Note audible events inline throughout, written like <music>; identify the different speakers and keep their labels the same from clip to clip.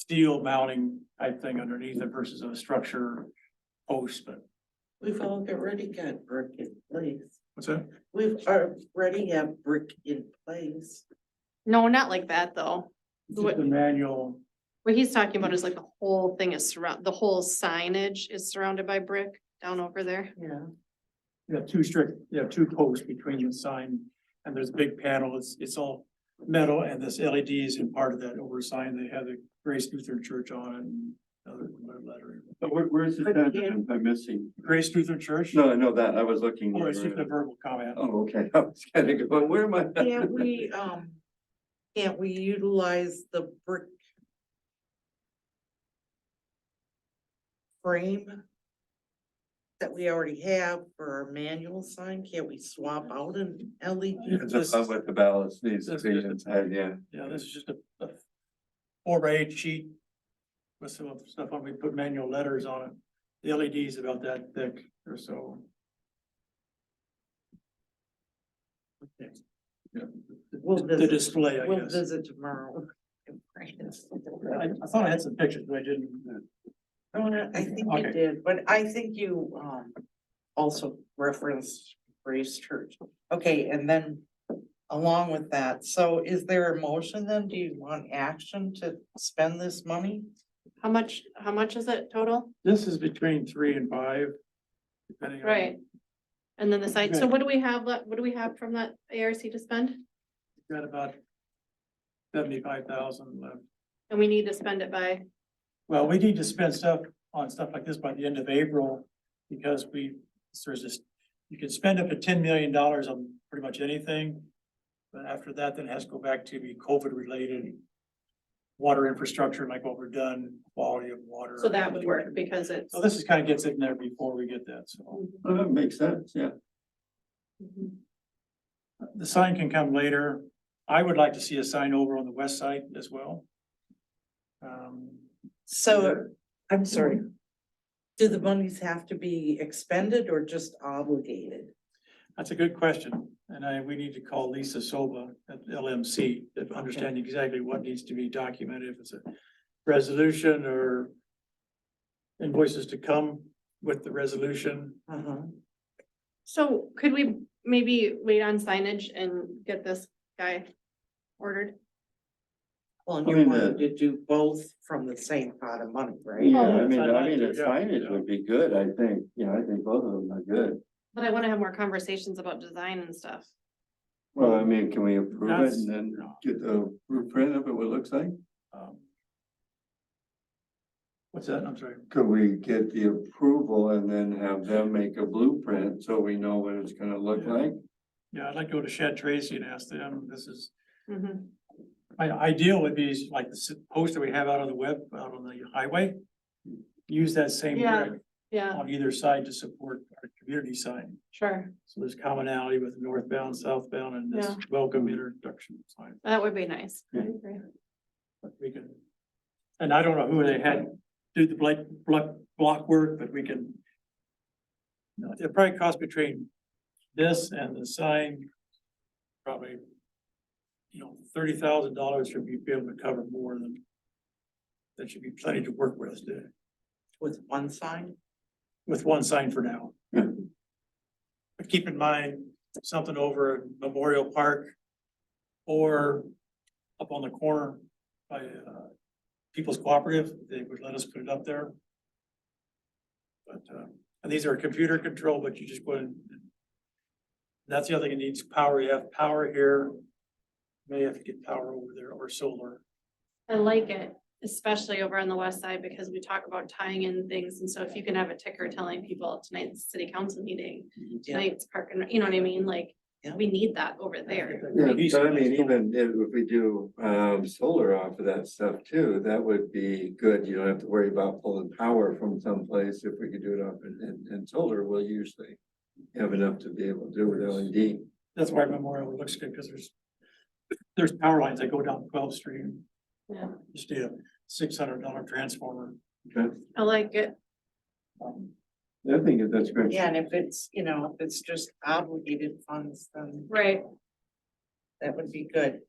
Speaker 1: steel mounting type thing underneath it versus a structure post, but.
Speaker 2: We've all already got brick in place.
Speaker 1: What's that?
Speaker 2: We've already have brick in place.
Speaker 3: No, not like that though.
Speaker 1: Just
Speaker 3: What-
Speaker 1: the manual,
Speaker 3: What he's talking about is like the whole thing is surround, the whole signage is surrounded by brick down over there.
Speaker 2: Yeah.
Speaker 1: you have two strict, you have two posts between the sign and there's a big panel, it's, it's all metal and this LED is in part of that over sign, they have the Grace Lutheran Church on it and other lettering.
Speaker 4: But where, where's the
Speaker 2: But
Speaker 4: sign
Speaker 2: again-
Speaker 4: that I'm missing?
Speaker 1: Grace Lutheran Church?
Speaker 4: No, I know that, I was looking.
Speaker 1: Oh, it's
Speaker 4: over
Speaker 1: just a
Speaker 4: it.
Speaker 1: verbal comment.
Speaker 4: Oh, okay, <laughs> I was kind of going, where am I? <laughs>
Speaker 2: Can't <laughs> we, um, can't we utilize the brick frame that we already have for our manual sign? Can't we swap out an E LED?
Speaker 4: That's about what the balance needs to
Speaker 1: That's
Speaker 4: be,
Speaker 1: just a-
Speaker 4: inside, yeah.
Speaker 1: Yeah, this is just a, a four by eight sheet with some of the stuff on, we put manual letters on it. The LED's about that thick or so. Okay.
Speaker 2: We'll
Speaker 1: The
Speaker 2: visit.
Speaker 1: display, I
Speaker 2: We'll
Speaker 1: guess.
Speaker 2: visit tomorrow. <laughs>
Speaker 1: I, I thought I had some pictures, but I didn't.
Speaker 2: No, no, I think you
Speaker 1: Okay.
Speaker 2: did, but I think you, um, also referenced Grace Church. Okay, and then along with that, so is there a motion then? Do you want action to spend this money?
Speaker 3: How much, how much is it total?
Speaker 1: This is between three and five. depending on-
Speaker 3: Right. And then the site, so
Speaker 1: Right.
Speaker 3: what do we have, left? what do we have from that ARC to spend?
Speaker 1: Got about seventy-five thousand left.
Speaker 3: And we need to spend it by,
Speaker 1: Well, we need to spend stuff on stuff like this by the end of April, because we, there's this, you can spend up to ten million dollars on pretty much anything. But after that, then it has to go back to be COVID related. Water infrastructure, like what we're done, quality of water.
Speaker 3: so that would work because it's.
Speaker 1: So this is kind of gets in there before we get that, so
Speaker 4: Oh, That makes sense, yeah.
Speaker 3: Mhm.
Speaker 1: the sign can come later. I would like to see a sign over on the west side as well. Um,
Speaker 2: So, I'm sorry. Do the monies have to be expended or just obligated?
Speaker 1: That's a good question, and I, we need to call Lisa Soba at LMC to understand exactly what needs to be documented, if it's a resolution or invoices to come with the resolution.
Speaker 2: Uh-huh.
Speaker 3: So could we maybe wait on signage and get this guy ordered?
Speaker 2: Well, and
Speaker 4: I
Speaker 2: you
Speaker 4: mean,
Speaker 2: wanted
Speaker 4: the-
Speaker 2: to do both from the same pot of money, right?
Speaker 4: Yeah, I
Speaker 1: Oh, that's
Speaker 4: mean,
Speaker 1: what I'd
Speaker 4: I mean, a
Speaker 1: like to, yeah.
Speaker 4: signage would be good, I think, you know, I think both of them are good.
Speaker 3: But I wanna have more conversations about design and stuff.
Speaker 4: Well, I mean, can we approve it
Speaker 1: That's-
Speaker 4: and then get the blueprint of it, what it looks like?
Speaker 1: um, What's that? I'm sorry.
Speaker 4: Could we get the approval and then have them make a blueprint so we know what it's gonna look
Speaker 1: Yeah.
Speaker 4: like?
Speaker 1: Yeah, I'd like to go to Shad Tracy and ask them, this is,
Speaker 3: Mhm.
Speaker 1: my ideal would be like the s- poster we have out on the web, out on the highway. Use that same
Speaker 3: Yeah.
Speaker 1: grid
Speaker 3: Yeah,
Speaker 1: on either side to support our community sign.
Speaker 3: sure.
Speaker 1: So there's commonality with northbound, southbound, and this
Speaker 3: Yeah.
Speaker 1: welcome introduction sign,
Speaker 3: That would be nice. I
Speaker 4: Yeah.
Speaker 3: agree.
Speaker 1: but we can. And I don't know who they had do the block, block, block work, but we can. No, It probably costs between this and the sign, probably. You know, thirty thousand dollars should be able to cover more than. That should be plenty to work with, uh,
Speaker 2: With one sign?
Speaker 1: with one sign for now.
Speaker 4: Yeah.
Speaker 1: But keep in mind, something over in Memorial Park or up on the corner by uh, People's Cooperative, they would let us put it up there. But, uh, and these are computer controlled, but you just put in. That's the other thing, it needs power, you have power here, may have to get power over there or solar.
Speaker 3: I like it, especially over on the west side, because we talk about tying in things, and so if you can have a ticker telling people tonight's city council meeting, tonight's park, and you know what I mean, like,
Speaker 2: Yeah.
Speaker 3: we need that over there.
Speaker 4: Yeah, but I mean, even if if we do um solar off of that stuff too, that would be good. You don't have to worry about pulling power from someplace if we could do it up and and and solar will usually. Have enough to be able to do with E LED.
Speaker 1: That's why Memorial looks good, because there's, there's power lines that go down 12th Street.
Speaker 3: Yeah.
Speaker 1: Just need a six hundred dollar transformer.
Speaker 4: Okay,
Speaker 3: I like it.
Speaker 4: I think that that's great.
Speaker 2: Yeah, and if it's, you know, if it's just obligated funds, then
Speaker 3: Right.
Speaker 2: that would be good.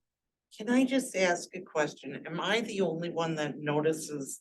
Speaker 2: Can I just ask a question? Am I the only one that notices